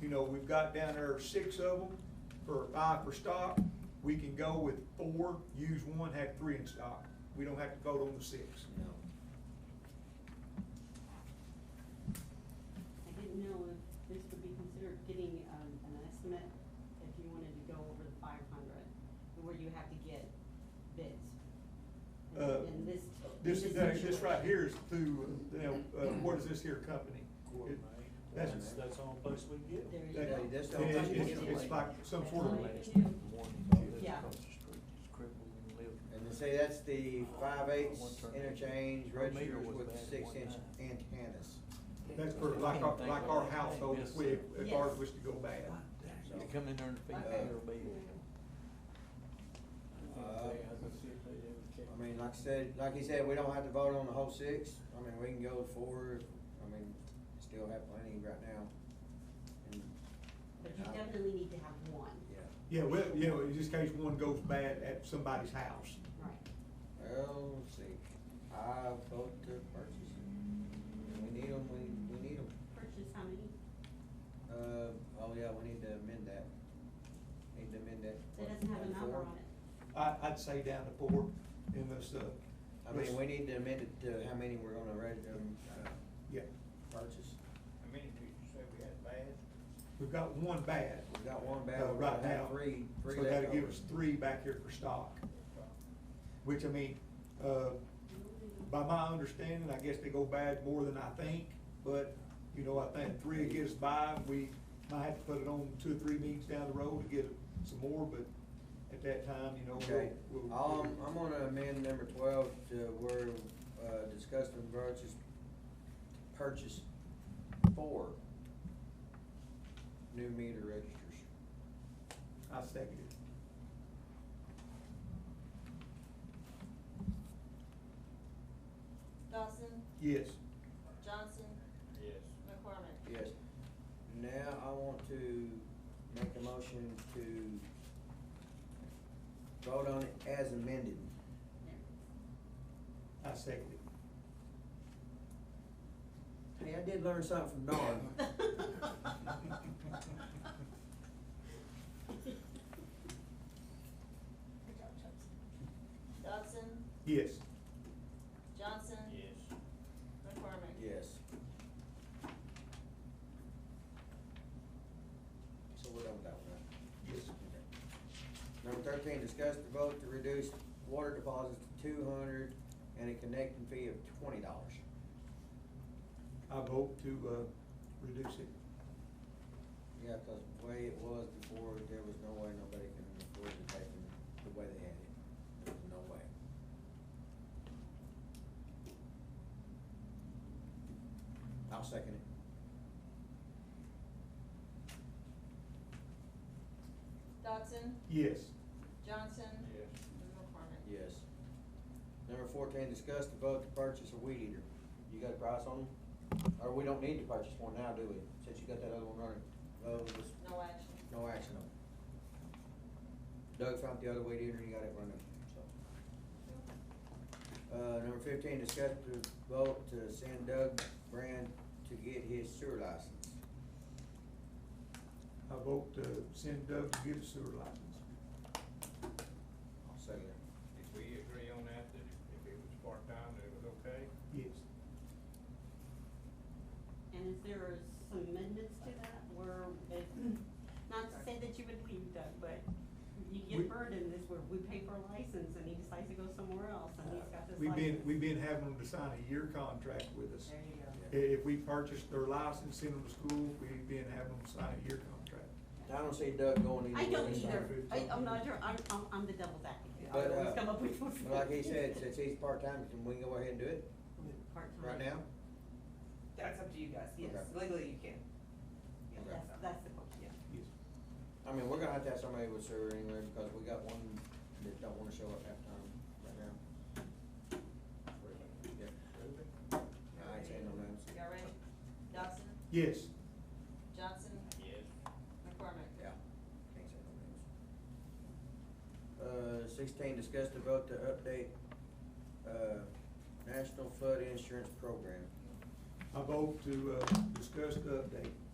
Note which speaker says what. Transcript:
Speaker 1: you know, we've got down there six of them for five per stock. We can go with four, use one, have three in stock. We don't have to vote on the six.
Speaker 2: No.
Speaker 3: I didn't know if this would be considered getting, um, an estimate if you wanted to go over the five hundred, where you have to get bids. And-
Speaker 1: Uh,
Speaker 3: And this.
Speaker 1: This,
Speaker 3: in
Speaker 1: that- this right
Speaker 3: situation.
Speaker 1: here is through, you know, uh, what is this here company? It- That's,
Speaker 4: That's, that's the only place we can get them.
Speaker 3: There you
Speaker 1: that-
Speaker 3: go.
Speaker 2: Hey, that's the
Speaker 1: it-
Speaker 2: only
Speaker 1: it's-
Speaker 2: thing you
Speaker 1: it's-
Speaker 2: can
Speaker 1: it's
Speaker 2: do.
Speaker 1: like some sort of.
Speaker 3: That's all you can do. Yeah.
Speaker 2: And they say that's the five eighths interchange registers with the six inch antennas.
Speaker 1: That's for like our, like our household, if we, if ours was to go bad.
Speaker 2: You
Speaker 5: come in there and feed
Speaker 3: Okay.
Speaker 2: their Uh, I mean, like I said, like he said, we don't have to vote on the whole six, I mean, we can go with four, I mean, still have plenty right now. And,
Speaker 3: But you definitely need to have one.
Speaker 2: yeah,
Speaker 1: Yeah, well, yeah, in this case, one goes bad at somebody's house.
Speaker 3: Right.
Speaker 2: well, let's see, I vote to purchase them, we need them, we, we need them.
Speaker 3: Purchase how many?
Speaker 2: Uh, oh yeah, we need to amend that, need to amend that.
Speaker 3: It doesn't have a number on it.
Speaker 1: I, I'd say down to four in this, uh.
Speaker 2: I mean, we need to amend it to how many we're gonna reg, um, uh,
Speaker 1: Yeah,
Speaker 2: purchase.
Speaker 4: How many did you say we had bad?
Speaker 1: we've got one bad.
Speaker 2: We got one bad,
Speaker 1: uh,
Speaker 2: we
Speaker 1: Right
Speaker 2: have
Speaker 1: now.
Speaker 2: three, three
Speaker 1: So that'll give
Speaker 2: leftovers.
Speaker 1: us three back here for stock, which I mean, uh, by my understanding, I guess they go bad more than I think, but, you know, I think three gets by, we might have to put it on two or three meetings down the road to get some more, but at that time, you know,
Speaker 2: Okay,
Speaker 1: we'll. we'll-
Speaker 2: um, I'm gonna amend number twelve to where, uh, discussed and purchase, purchase four new meter registers.
Speaker 1: I second it.
Speaker 6: Dawson,
Speaker 1: Yes.
Speaker 6: Johnson,
Speaker 4: Yes.
Speaker 6: McCormick.
Speaker 2: Yes. Now I want to make a motion to vote on it as amended.
Speaker 1: I second it.
Speaker 2: Hey, I did learn something from Dawn.
Speaker 6: Dawson,
Speaker 1: Yes.
Speaker 6: Johnson,
Speaker 4: Yes.
Speaker 6: McCormick.
Speaker 2: Yes. So we're done with that one, right?
Speaker 1: Yes.
Speaker 2: Number thirteen, discuss the vote to reduce water deposits to two hundred and a connecting fee of twenty dollars.
Speaker 1: I vote to, uh, reduce it.
Speaker 2: Yeah, cause the way it was before, there was no way nobody can afford to take them the way they had it. There was no way. I'll second it.
Speaker 6: Dawson,
Speaker 1: Yes.
Speaker 6: Johnson.
Speaker 4: Yes.
Speaker 6: McCormick.
Speaker 2: Yes. Number fourteen, discuss the vote to purchase a weed eater. You got a price on them? Or we don't need to purchase one now, do we? Since you got that other one running. Oh, this-
Speaker 6: No action.
Speaker 2: No action on it. Doug found the other way in and he got it running, so. Uh, number fifteen, discuss the vote to send Doug Brand to get his sewer license.
Speaker 1: I vote to send Doug to get a sewer license.
Speaker 2: I'll second that.
Speaker 4: Did we agree on that, that if it was part-time, that it was okay?
Speaker 1: Yes.
Speaker 3: And is there some amendments to that where it, not to say that you would leave Doug, but you
Speaker 1: We-
Speaker 3: get burdened is where we pay for a license and he decides to go somewhere else and he's got this
Speaker 1: We've
Speaker 3: license.
Speaker 1: been, we've been having them to sign a year contract with us.
Speaker 3: There you
Speaker 1: I-
Speaker 3: go.
Speaker 1: If we purchase their license, send them to school, we've been having them sign a year contract.
Speaker 2: I don't see Doug going
Speaker 3: I
Speaker 2: anywhere.
Speaker 3: don't
Speaker 2: this time.
Speaker 3: either. I, I'm not, sure. I'm, I'm, I'm the devil's advocate. I
Speaker 2: But, uh,
Speaker 3: always come up with.
Speaker 2: but like he said, since he's part-time, can we go ahead and do it
Speaker 3: Part-time.
Speaker 2: right now?
Speaker 7: That's up to you guys, yes,
Speaker 2: Okay.
Speaker 7: legally you can. Yeah,
Speaker 2: Okay.
Speaker 3: That's, that's the question, yeah.
Speaker 1: Yes.
Speaker 2: I mean, we're gonna have to have somebody with sewer anyway, because we got one that don't wanna show up half time right now. Yeah. I ain't saying no names.
Speaker 6: Y'all ready? Dawson,
Speaker 1: Yes.
Speaker 6: Johnson,
Speaker 4: Yes.
Speaker 6: McCormick.
Speaker 2: Yeah, can't say no names. Uh, sixteen, discuss the vote to update, uh, National Flood Insurance Program.
Speaker 1: I vote to, uh, discuss the update.